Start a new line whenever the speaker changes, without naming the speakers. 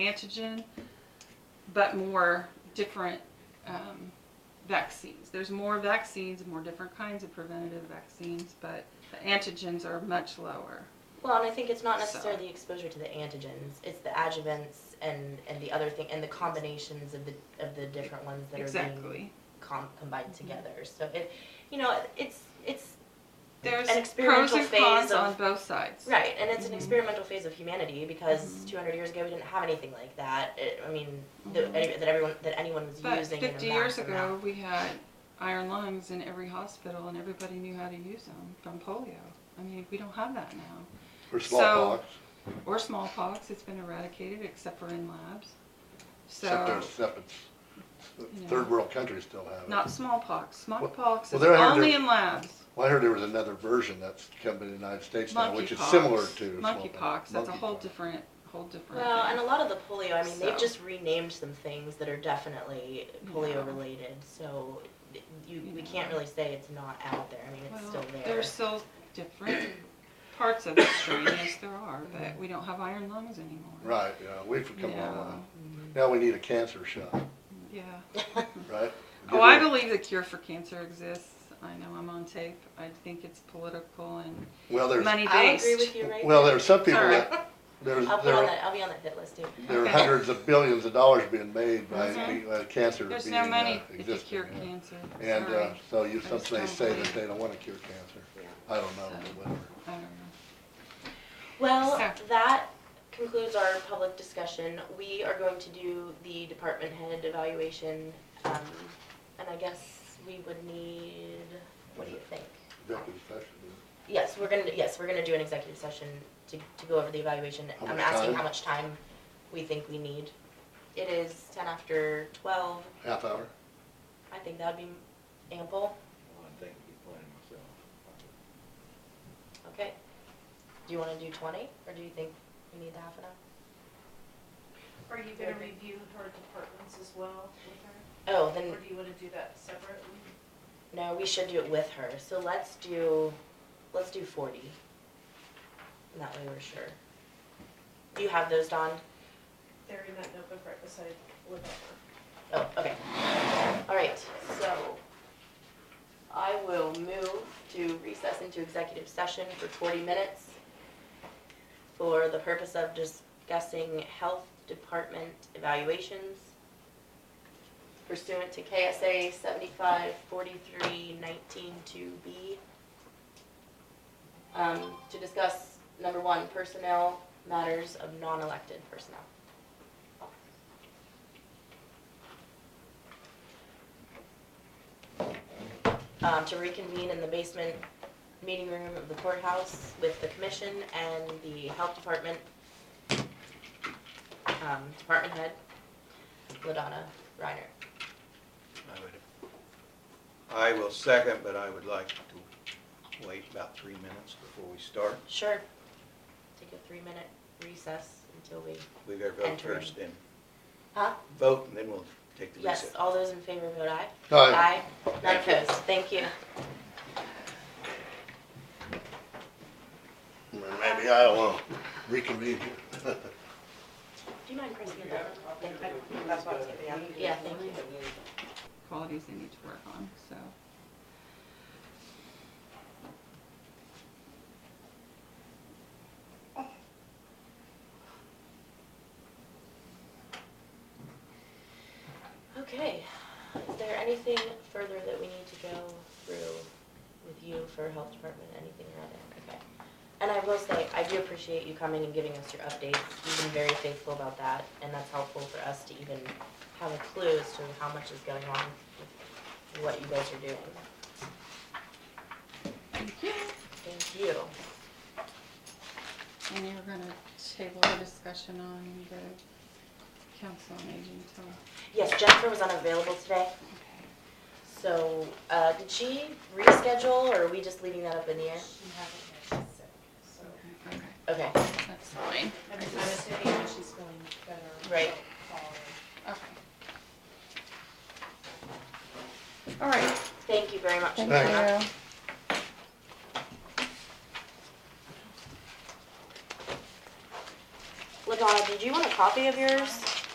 antigen, but more different um, vaccines. There's more vaccines, more different kinds of preventative vaccines, but the antigens are much lower.
Well, and I think it's not
So-
necessarily the exposure to the antigens, it's the adjuvants and, and the other thing, and the combinations of the, of the different ones that are being
Exactly. Mm-hmm.
com- combined together. So it, you know, it's, it's,
There's
An
pros
experimental
and
phase
cons
of-
on both sides.
right, and it's an
Mhm.
experimental phase of humanity because
Mhm.
two hundred years ago, we didn't have anything like that. It, I mean,
Mhm.
that, any- that everyone, that anyone was
But
using in a
50 years
mass amount.
ago, we had iron lungs in every hospital, and everybody knew how to use them from polio. I mean, we don't have that now.
Or
So-
smallpox,
Or smallpox, it's been eradicated except for in labs. So,
except there's, except it's,
Yeah.
third world countries still have it.
not smallpox. Smallpox is
well, there are-
only
there-
in labs.
Well, I heard there was another version that's come to the United States now, which is
Monkeypox.
similar to
monkeypox.
smallpox.
That's a whole
Monkeypox.
different, whole different.
Well,
thing.
and a lot of the polio, I mean,
So-
they've just renamed some things that are definitely
Yeah.
polio related, so you, we can't really say it's not out there, I mean, it's
Well,
still there.
There's still different parts of the strain. Yes, there are, but we don't have iron lungs anymore.
Right, yeah, we've come a long
Yeah.
way. Now we need a cancer shot,
Yeah.
right?
Oh, I believe the cure for cancer exists. I know I'm on tape. I think it's political and
Well, there's,
money
I'll
based.
agree with you right
well,
there.
there's some people
Sorry.
that, there's,
I'll put
there
on
are,
that, I'll be on that hit list too.
there are
Okay.
hundreds of billions of dollars being made by,
Mhm.
uh, cancer being, uh,
There's
existing.
no money if you cure
yeah.
cancer.
And,
Sorry.
uh, so you,
I
some
just
may
don't
say that
believe.
they don't wanna cure cancer.
Yeah.
I don't know,
So-
whatever.
I don't know.
Well,
So-
that concludes our public discussion. We are going to do the department head evaluation, um, and I guess we would need, what do you think?
Executive session.
Yes, we're gonna, yes, we're gonna do an executive session to, to go over the evaluation.
How
I'm
much
asking
time?
how much time we think we need. It is ten after twelve,
half hour.
I think that'd be ample,
Well, I think he's playing myself.
okay? Do you wanna do twenty, or do you think we need the half an hour?
Are you gonna review her departments as well with
Oh,
her,
then,
or do you wanna do that separately?
no, we should do it with her, so let's do, let's do forty. And That way we're sure. Do you have those, Dawn?
They're in that notebook right beside Laverne.
Oh, okay. All right, so I will move to recess into executive session for 40 minutes for the purpose of discussing health department evaluations pursuant to KSA 754319-2B. um, To discuss, number one, personnel, matters of non-elected personnel. um, to reconvene in the basement meeting room of the courthouse with the commission and the health department, um, department head, Ladonna Reiner.
I would, I will second, but I would like to wait about three minutes before we start.
Sure. Take a three-minute recess until we,
We gotta vote
Enter.
first, then
huh?
vote, and then we'll take the
Yes,
recess.
all those in favor vote aye.
Aye.
None opposed, thank you.
Maybe I don't know. Reconvene here.
Do you mind pressing the button? Thank you.
That's what I was getting at.
Yeah, thank you.
Qualities they need to work on, so.
Okay, is there anything further that we need to go through with you for health department, anything or other? Okay. And I will say, I do appreciate you coming and giving us your updates. You've been very faithful about that, and that's helpful for us to even have a clue as to how much is going on with what you guys are doing.
Thank you.
Thank you.
And you're gonna table the discussion on the council on aging till,
Yes, Jennifer was unavailable today,
okay.
so, uh, did she reschedule, or are we just leaving that up in the air?
She hasn't, she's sick, so,
Okay,
Okay,
that's fine.
I'm I'm assuming that she's feeling better.
Right.
Following.
Okay. All right,
thank you very much.
thank
Jennifer.
you.
LaDonna, did you wanna copy of yours?